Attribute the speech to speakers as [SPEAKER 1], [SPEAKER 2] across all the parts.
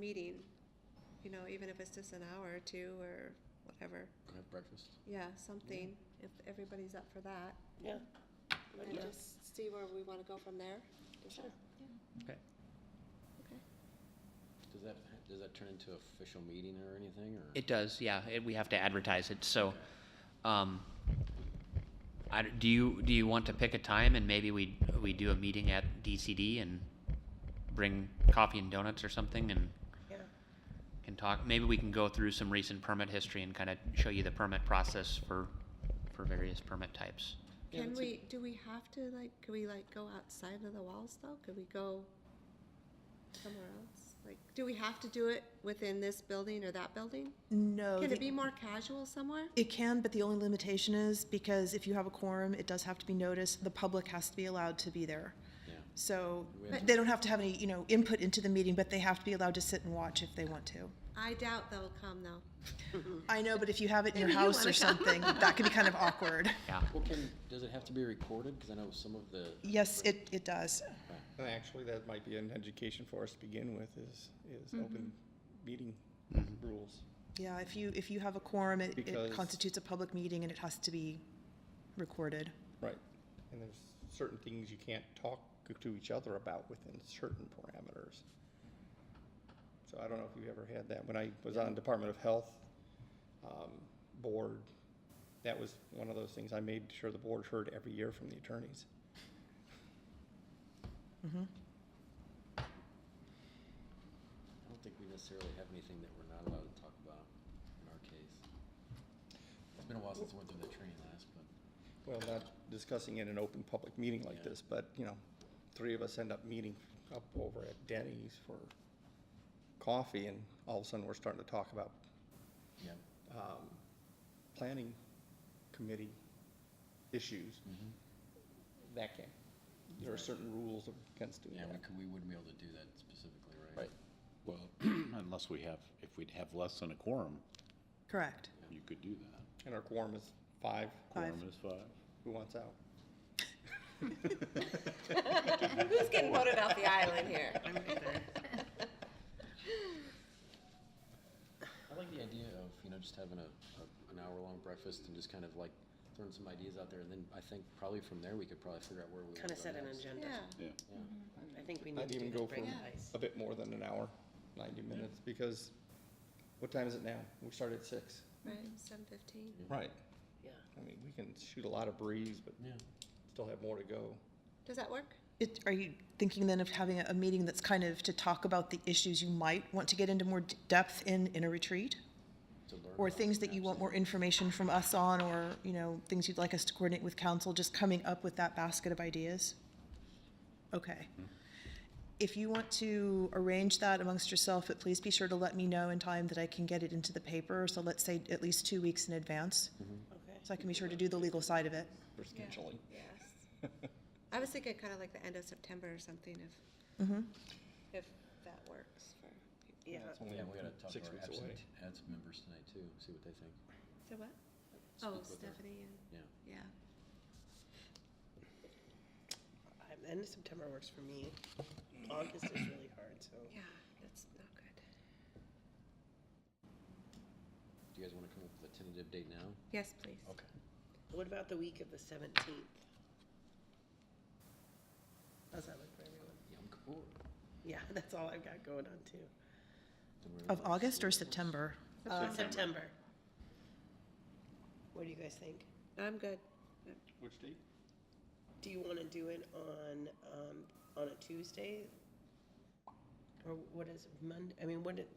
[SPEAKER 1] meeting, you know, even if it's just an hour or two or whatever.
[SPEAKER 2] Have breakfast.
[SPEAKER 1] Yeah, something, if everybody's up for that.
[SPEAKER 3] Yeah. Let me
[SPEAKER 1] And
[SPEAKER 3] just,
[SPEAKER 1] just see where we want to go from there.
[SPEAKER 3] sure.
[SPEAKER 2] Okay.
[SPEAKER 1] Okay.
[SPEAKER 2] Does that, does that turn into official meeting or anything, or?
[SPEAKER 4] It does, yeah. It, we have to advertise it, so, um, I d do you, do you want to pick a time and maybe we, we do a meeting at DCD and bring coffee and donuts or something and
[SPEAKER 3] Yeah.
[SPEAKER 4] can talk? Maybe we can go through some recent permit history and kind of show you the permit process for, for various permit types.
[SPEAKER 2] Yeah,
[SPEAKER 1] Can
[SPEAKER 2] that's a-
[SPEAKER 1] we, do we have to, like, could we, like, go outside of the walls, though? Could we go somewhere else? Like, do we have to do it within this building or that building?
[SPEAKER 5] No.
[SPEAKER 1] Can
[SPEAKER 5] Oh, the-
[SPEAKER 1] it be more casual somewhere?
[SPEAKER 5] It can, but the only limitation is because if you have a quorum, it does have to be noticed. The public has to be allowed to be there.
[SPEAKER 2] Yeah.
[SPEAKER 5] So
[SPEAKER 2] We have to-
[SPEAKER 5] they don't have to have any, you know, input into the meeting, but they have to be allowed to sit and watch if they want to.
[SPEAKER 1] I doubt they'll come, though.
[SPEAKER 5] I know, but if you have it in your
[SPEAKER 1] Maybe you
[SPEAKER 5] house
[SPEAKER 1] wanna
[SPEAKER 5] or something, that can be kind of awkward.
[SPEAKER 4] Yeah.
[SPEAKER 2] Well, can, does it have to be recorded? Because I know some of the,
[SPEAKER 5] Yes, it, it does.
[SPEAKER 6] And actually, that might be an education for us to begin with, is, is open meeting rules.
[SPEAKER 5] Yeah, if you, if you have a quorum, it- it
[SPEAKER 6] Because-
[SPEAKER 5] constitutes a public meeting and it has to be recorded.
[SPEAKER 6] Right. And there's certain things you can't talk to each other about within certain parameters. So I don't know if you ever had that. When I was on Department of Health um, Board, that was one of those things I made sure the board heard every year from the attorneys.
[SPEAKER 2] I don't think we necessarily have anything that we're not allowed to talk about in our case. It's been a while since I went through that training last, but.
[SPEAKER 6] Well, not discussing in an open public meeting like
[SPEAKER 2] Yeah.
[SPEAKER 6] this, but, you know, three of us end up meeting up over at Denny's for coffee, and all of a sudden, we're starting to talk about
[SPEAKER 2] Yeah.
[SPEAKER 6] um, planning committee issues.
[SPEAKER 3] Mm-hmm.
[SPEAKER 6] That can, there are certain rules against doing
[SPEAKER 2] Yeah, we
[SPEAKER 6] that.
[SPEAKER 2] could, we wouldn't be able to do that specifically, right?
[SPEAKER 6] Right.
[SPEAKER 7] Well, unless we have, if we'd have less than a quorum,
[SPEAKER 5] Correct.
[SPEAKER 7] you could do that.
[SPEAKER 6] And our quorum is five.
[SPEAKER 5] Five.
[SPEAKER 7] Quorum is five.
[SPEAKER 6] Who wants out?
[SPEAKER 3] Who's getting voted off the island here?
[SPEAKER 2] I like the idea of, you know, just having a, a, an hour-long breakfast and just kind of like throwing some ideas out there, and then I think probably from there, we could probably figure out where we want to go
[SPEAKER 3] Kind of set an
[SPEAKER 2] next.
[SPEAKER 3] agenda.
[SPEAKER 1] Yeah.
[SPEAKER 7] Yeah.
[SPEAKER 3] I think we need
[SPEAKER 6] I'd
[SPEAKER 3] to do
[SPEAKER 6] even
[SPEAKER 3] that,
[SPEAKER 6] go
[SPEAKER 3] break
[SPEAKER 6] for
[SPEAKER 3] ice.
[SPEAKER 6] a bit more than an hour, ninety minutes, because what time is it now? We started at six.
[SPEAKER 1] Right, seven fifteen.
[SPEAKER 6] Right.
[SPEAKER 3] Yeah.
[SPEAKER 6] I mean, we can shoot a lot of breeze, but
[SPEAKER 2] Yeah.
[SPEAKER 6] still have more to go.
[SPEAKER 1] Does that work?
[SPEAKER 5] It, are you thinking then of having a, a meeting that's kind of to talk about the issues you might want to get into more d- depth in, in a retreat?
[SPEAKER 2] To learn
[SPEAKER 5] Or
[SPEAKER 2] about
[SPEAKER 5] things that you want more information from us on, or, you know, things you'd like us to coordinate with council, just coming up with that basket of ideas? Okay. If you want to arrange that amongst yourself, but please be sure to let me know in time that I can get it into the paper, so let's say at least two weeks in advance,
[SPEAKER 3] Okay.
[SPEAKER 5] so I can be sure to do the legal side of it.
[SPEAKER 6] for scheduling.
[SPEAKER 1] Yes. I was thinking kind of like the end of September or something, if, if that works for people.
[SPEAKER 3] Yeah.
[SPEAKER 6] It's only
[SPEAKER 2] Yeah, we gotta talk to
[SPEAKER 6] six
[SPEAKER 2] our
[SPEAKER 6] weeks away.
[SPEAKER 2] absent, absent members tonight too, see what they think,
[SPEAKER 1] So what? Oh,
[SPEAKER 2] Speak with her.
[SPEAKER 1] Stephanie and,
[SPEAKER 2] yeah.
[SPEAKER 1] yeah.
[SPEAKER 3] I- End of September works for me. August is really hard, so.
[SPEAKER 1] Yeah, that's not good.
[SPEAKER 2] Do you guys wanna come up with a tentative date now?
[SPEAKER 1] Yes, please.
[SPEAKER 2] Okay.
[SPEAKER 3] What about the week of the seventeenth? How's that look for everyone?
[SPEAKER 2] Yom Kippur.
[SPEAKER 3] Yeah, that's all I've got going on too.
[SPEAKER 2] Then we're
[SPEAKER 5] Of
[SPEAKER 2] gonna-
[SPEAKER 5] August or September?
[SPEAKER 3] Uh, September. What do you guys think?
[SPEAKER 1] I'm good.
[SPEAKER 6] Which date?
[SPEAKER 3] Do you want to do it on, um, on a Tuesday? Or what is Monday? I mean, what it,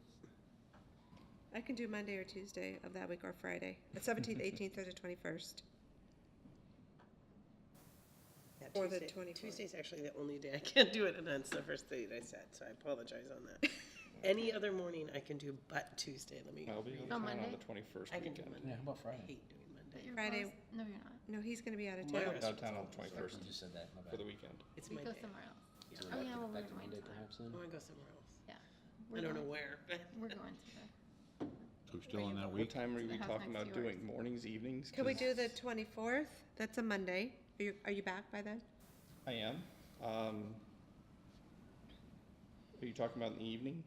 [SPEAKER 1] I can do Monday or Tuesday of that week or Friday, the seventeenth, eighteenth, or the twenty-first.
[SPEAKER 3] that
[SPEAKER 1] Or the
[SPEAKER 3] Tuesday-
[SPEAKER 1] 24th.
[SPEAKER 3] Tuesday's actually the only day I can't do it, and that's the first date I said, so I apologize on that. Any other morning I can do but Tuesday, let me,
[SPEAKER 6] I'll be in town on
[SPEAKER 8] Monday?
[SPEAKER 6] the twenty-first
[SPEAKER 3] I can do
[SPEAKER 6] weekend.
[SPEAKER 3] Monday.
[SPEAKER 2] Yeah, how about
[SPEAKER 3] I
[SPEAKER 2] Friday?
[SPEAKER 3] hate doing Monday.
[SPEAKER 8] You're
[SPEAKER 1] Friday-
[SPEAKER 8] closed- No, you're not.
[SPEAKER 1] No, he's gonna be out of
[SPEAKER 3] My
[SPEAKER 6] I'm
[SPEAKER 1] town.
[SPEAKER 3] rest-
[SPEAKER 6] downtown on the
[SPEAKER 2] First,
[SPEAKER 6] twenty-first
[SPEAKER 2] you just said that, my bad.
[SPEAKER 6] for the weekend.
[SPEAKER 3] It's
[SPEAKER 8] We
[SPEAKER 3] my
[SPEAKER 8] go
[SPEAKER 3] day.
[SPEAKER 8] somewhere else.
[SPEAKER 2] So
[SPEAKER 8] Oh,
[SPEAKER 2] back
[SPEAKER 8] yeah,
[SPEAKER 2] to-
[SPEAKER 8] well, we're
[SPEAKER 2] Back to
[SPEAKER 8] going
[SPEAKER 2] Monday
[SPEAKER 8] to that.
[SPEAKER 2] perhaps
[SPEAKER 3] I
[SPEAKER 2] then?
[SPEAKER 3] want to go somewhere else.
[SPEAKER 8] Yeah.
[SPEAKER 3] I
[SPEAKER 8] We're
[SPEAKER 3] don't know
[SPEAKER 8] going-
[SPEAKER 3] where, but
[SPEAKER 8] We're going to the,
[SPEAKER 7] So we're still in that
[SPEAKER 6] What
[SPEAKER 7] week?
[SPEAKER 6] time are we
[SPEAKER 8] The house
[SPEAKER 6] talking
[SPEAKER 8] next
[SPEAKER 6] about
[SPEAKER 8] to yours.
[SPEAKER 6] doing? Mornings, evenings?
[SPEAKER 1] Can we
[SPEAKER 6] 'Cause
[SPEAKER 1] do the twenty-fourth? That's a Monday. Are you, are you back by then?
[SPEAKER 6] I am. Um, Are you talking about in the evening?